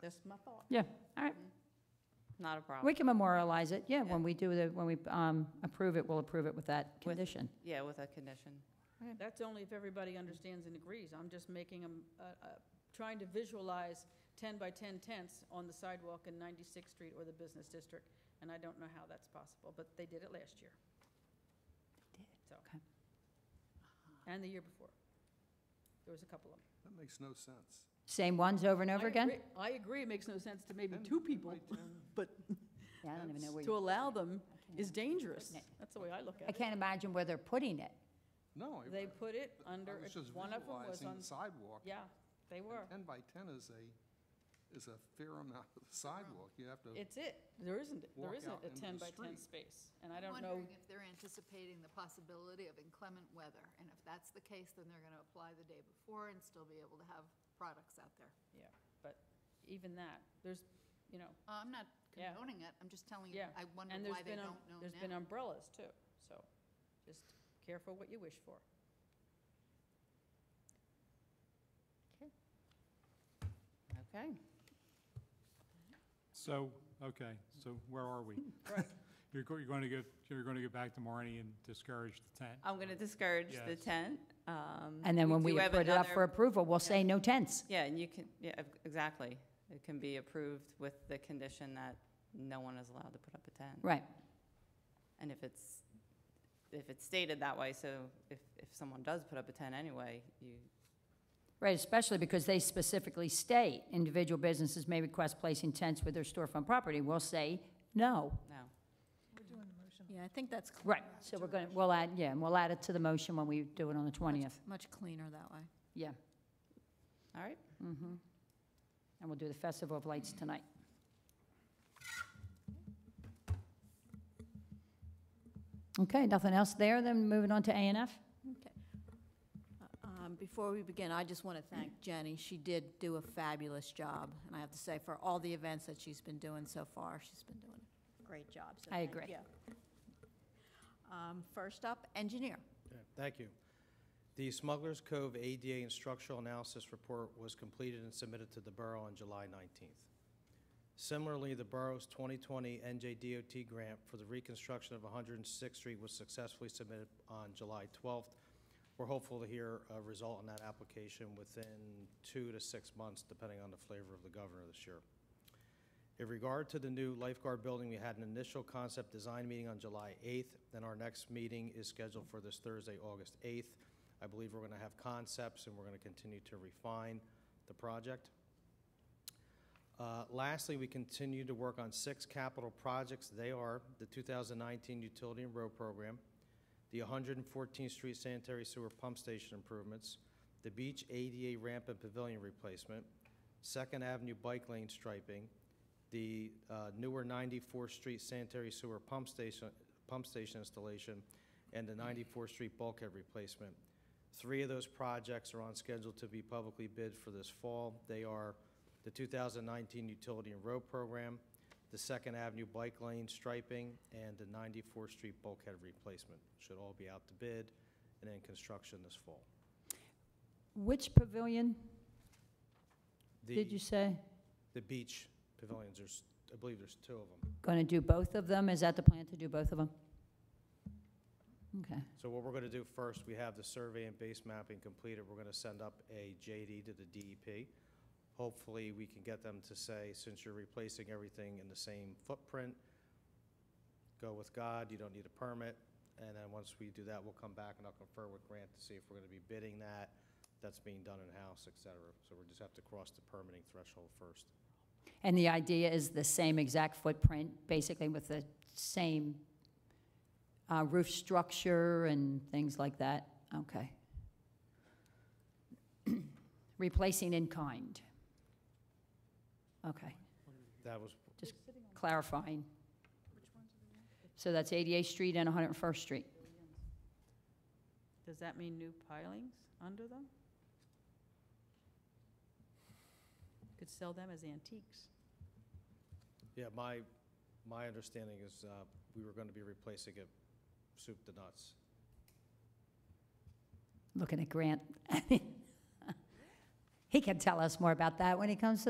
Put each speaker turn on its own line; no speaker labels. Just my thought.
Yeah, all right.
Mm-hmm. Not a problem.
We can memorialize it, yeah, when we do the, when we um, approve it, we'll approve it with that condition.
Yeah, with a condition.
That's only if everybody understands and agrees. I'm just making them, trying to visualize 10 by 10 tents on the sidewalk in 96th Street or the business district, and I don't know how that's possible, but they did it last year.
They
So.
okay.
And the year before. There was a couple of them.
That makes no sense.
Same ones over and over
I
again?
agree- I agree, it makes no sense to maybe
Ten
two people,
by ten.
but
Yeah, I don't even know where
to
you,
allow them
can't
is dangerous.
Putting
That's the way I look
I
at it.
can't imagine where they're putting it.
No. I-
They put it
I
under,
was just
one of them was
visualizing
on,
the sidewalk.
yeah, they
and
were.
Ten by ten is a, is a fair amount of the sidewalk. You have to,
It's it. There isn't, there
Walk
isn't
out
a
into
ten
the
by ten
street.
space, and I
I'm
don't know,
wondering if they're anticipating the possibility of inclement weather, and if that's the case, then they're gonna apply the day before and still be able to have products out there.
even that, there's, you know,
Uh, I'm not
Yeah.
condoning it, I'm just telling you,
Yeah.
I wonder
and there's
why they
been, um,
don't know
there's been
now.
umbrellas too, so just careful what you wish for.
Okay.
So, okay, so where are we?
Right.
You're, go- you're going to get, you're going to get back to Maureen and discourage the tent?
I'm going to discourage the
Yes.
tent. um,
And then when we
do have
put it up
another-
for approval, we'll say no tents.
Yeah, and you can, yeah, ex- exactly. It can be approved with the condition that no one is allowed to put up a tent.
Mm-hmm.
Right,
And if it's, if it's stated that way, so if, if someone does put up a tent anyway, you,
right, especially because they specifically state individual businesses may request placing tents with their storefront property. We'll say no.
no.
Yeah, I think that's cl-
Right, so we're going, to we'll add, yeah, and we'll add it to the motion when we do it on the 20th.
much cleaner that way.
Yeah,
All right,
mm-hmm. And we'll do the Festival of Lights tonight. Okay, nothing else there, then moving on to A and F?
Um, Before we begin, I just want to thank Jenny. She did do a fabulous job, and I have to say, for all the events that she's been doing so far, she's been doing a great job. so
I
thank
agree.
you. Um, First up, engineer.
Okay, Thank you. The Smuggler's Cove ADA and Structural Analysis Report was completed and submitted to the Borough on July 19th. Similarly, the Borough's 2020 NJDOT grant for the reconstruction of 106th Street was successfully submitted on July 12th. We're hopeful to hear a result on that application within two to six months, depending on the flavor of the governor this year. In regard to the new lifeguard building, we had an initial concept design meeting on July 8th, and our next meeting is scheduled for this Thursday, August 8th. I believe we're going to have concepts, and we're going to continue to refine the project. Uh, Lastly, we continue to work on six capital projects. They are the 2019 Utility and Road Program, the 114th Street Sanitary Sewer Pump Station improvements, the beach ADA ramp and pavilion replacement, Second Avenue bike lane striping, the uh, newer 94th Street sanitary sewer pump station, pump station installation, and the 94th Street bulkhead replacement. Three of those projects are on schedule to be publicly bid for this fall. They are the 2019 Utility and Road Program, the Second Avenue Bike Lane striping, and the 94th Street bulkhead replacement. Should all be out to bid and in construction this fall.
Which pavilion did you
The,
say?
the beach pavilions, there's, I believe there's two of them.
Going to do both of them? Is that the plan to do both of them? Okay,
So what we're gonna do first, we have the survey and base mapping completed, we're gonna send up a JD to the DEP. Hopefully, we can get them to say, since you're replacing everything in the same footprint, go with God, you don't need a permit, and then once we do that, we'll come back and I'll confer with Grant to see if we're gonna be bidding that, that's being done in-house, et cetera. So we'll just have to cross the permitting threshold first.
and the idea is the same exact footprint, basically with the same uh, roof structure and things like that? Okay. Replacing in kind. Okay,
That was
clarifying. So that's 88th Street and 101st Street.
Does that mean new pilings under them? Could sell them as antiques.
Yeah, my, my understanding is, uh, we were gonna be replacing it soup to nuts.
Looking at Grant. He can tell us more about that when he comes to